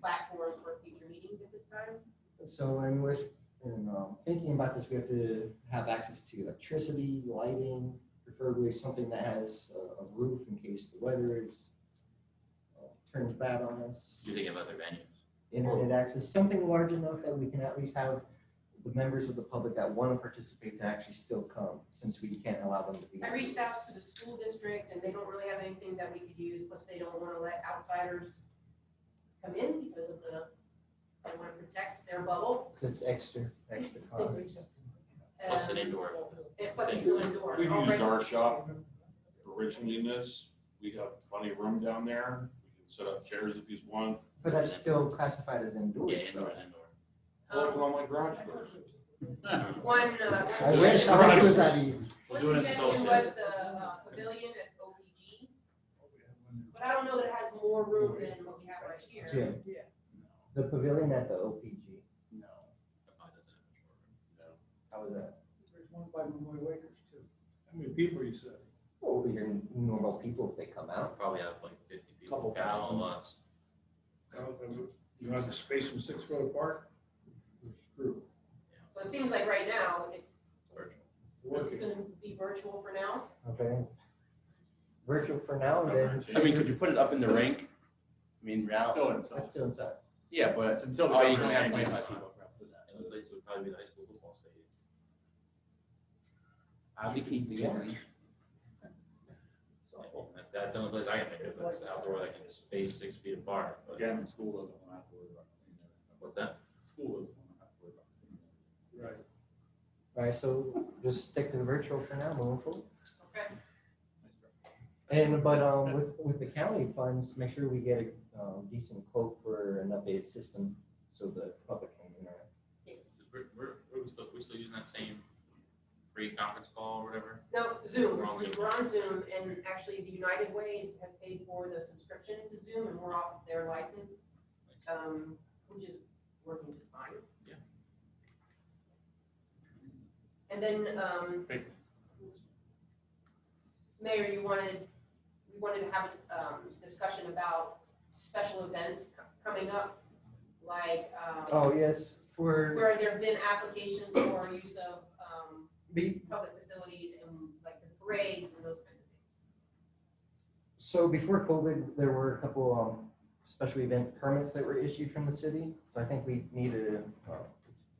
platform for future meetings at this time? So in which, in um, thinking about this, we have to have access to electricity, lighting, preferably something that has a- a roof in case the weather is, uh, turns bad on us. You think of other venues. Internet access, something large enough that we can at least have the members of the public that want to participate to actually still come, since we can't allow them to be. I reached out to the school district and they don't really have anything that we could use, plus they don't want to let outsiders come in because of the, they want to protect their bubble. 'Cause It's extra, extra cost. Plus an Um, indoor. and Plus it's still indoor. We've All used right. our shop originally in this. We have plenty of room down there. We can set up chairs if you want. But that's still classified as Yeah, indoors, indoor, though. indoor. Put it Um, on my garage door. One, uh, I one wish, suggestion I wish it was was, that easy. one We're doing it in suggestion Solitaire. was the uh, pavilion at OPG, but I don't know that it has more room than what we have right here. Jim, the pavilion at the OPG, No. how was that? There's one by Lemoy Wakers too. How many people you said? Well, we hear normal people if they come out. Probably have like fifty people. Couple Got all thousand. of us. You don't have the space from Six Road Park? Screw. So it seems like right now, it's, It's virtual. it's gonna be virtual for now. Okay. Virtual for now, and then. I mean, could you put it up in the rink? I mean, It's now, Still inside. That's still inside. yeah, but it's until the Oh, you governor has can have 25 25 people. And the place would probably be the high school football stadium. I think he's the governor. So that- That's the only place I can think of that's outdoor that can space six feet apart. but- Again, the school doesn't want to have to worry about cleaning it. What's that? School doesn't want to have to worry about cleaning it. Right. All right, so just stick to the virtual for now, moving forward. Okay. And, but, um, with, with the county funds, make sure we get a um, decent quote for an updated system so the public can interact. Yes. We're, we're, we're still, we're still using that same free conference call or whatever. No, Zoom, We're on Zoom. we're on Zoom, and actually, the United Ways has paid for the subscription to Zoom, and we're off their license, um, which is working just fine. Yeah. And then, um, Thank Mayor, you wanted, we wanted to have a, um, discussion about special events co- coming up, like, um, Oh, yes, for, where there have been applications for use of, um, be, public facilities and like the parades and those kinds of things. So before COVID, there were a couple um, special event permits that were issued from the city. So I think we need to uh,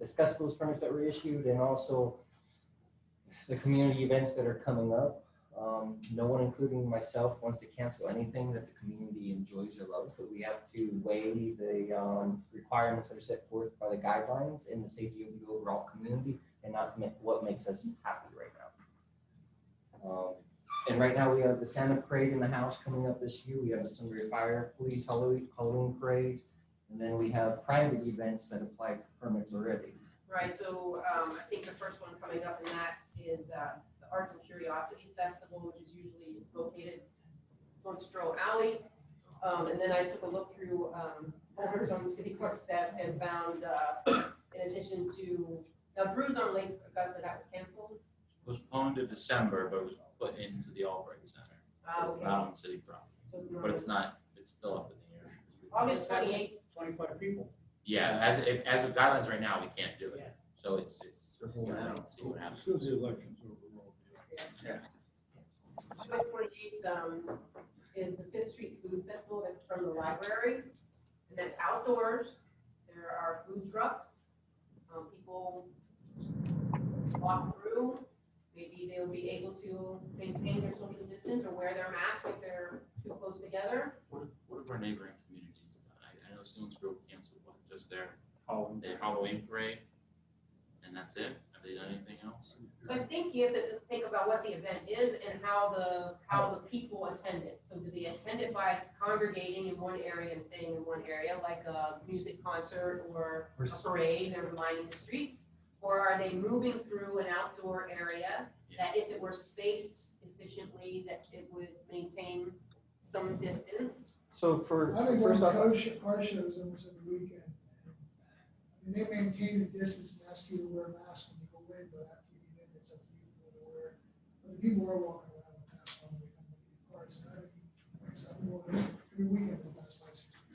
discuss those permits that were issued and also the community events that are coming up. Um, No one, including myself, wants to cancel anything that the community enjoys or loves, but we have to weigh the um, requirements that are set forth by the guidelines and the safety of the overall community and not commit what makes us happy right now. Um, and right now, we have the Santa Parade in the house coming up this year. We have the Sunbury Fire Police Halloween, Halloween Parade. And then we have private events that apply for permits already. Right, so um, I think the first one coming up in that is uh, the Arts and Curiosities Festival, which is usually located on Stroh Alley. Um, And then I took a look through um, folders on the city clerk's desk and found, uh, in addition to, now Brews on Lake Augusta, that was canceled. Postponed to December, but it was put into the Albright Center. Uh, It's not on city property, so it's but it's not- not, it's still up in the air. August 28th, Twenty-five people. Yeah, as, if- as of guidelines right now, we can't do it. So it's, it's, The whole I round. don't see what happens. soon as the election's over, we'll be like, August 28th um, is the Fifth Street Food Festival that's from the library, and that's outdoors. There are food trucks, um, people walk through, maybe they'll be able to maintain their social distance or wear their mask if they're too close together. What what have our neighboring communities done? I, I know Stillingsville canceled, what, just their, Oh, Halloween. their Halloween parade? And that's it? Have they done anything else? So I think you have to think about what the event is and how the, how the people attend it. So do they attend it by congregating in one area and staying in one area, like a music concert or a Or s- parade, they're lining the streets? Or are they moving through an outdoor area that if it were spaced efficiently, that it would maintain some distance? So for, I've been going first to off, car sh- car shows over the weekend. And they maintain the distance and ask you to wear a mask when you go in, but after you get in, it's up to you to wear. it. But if people are walking around with masks on, they come to the cars. and I think, it's up to you every weekend.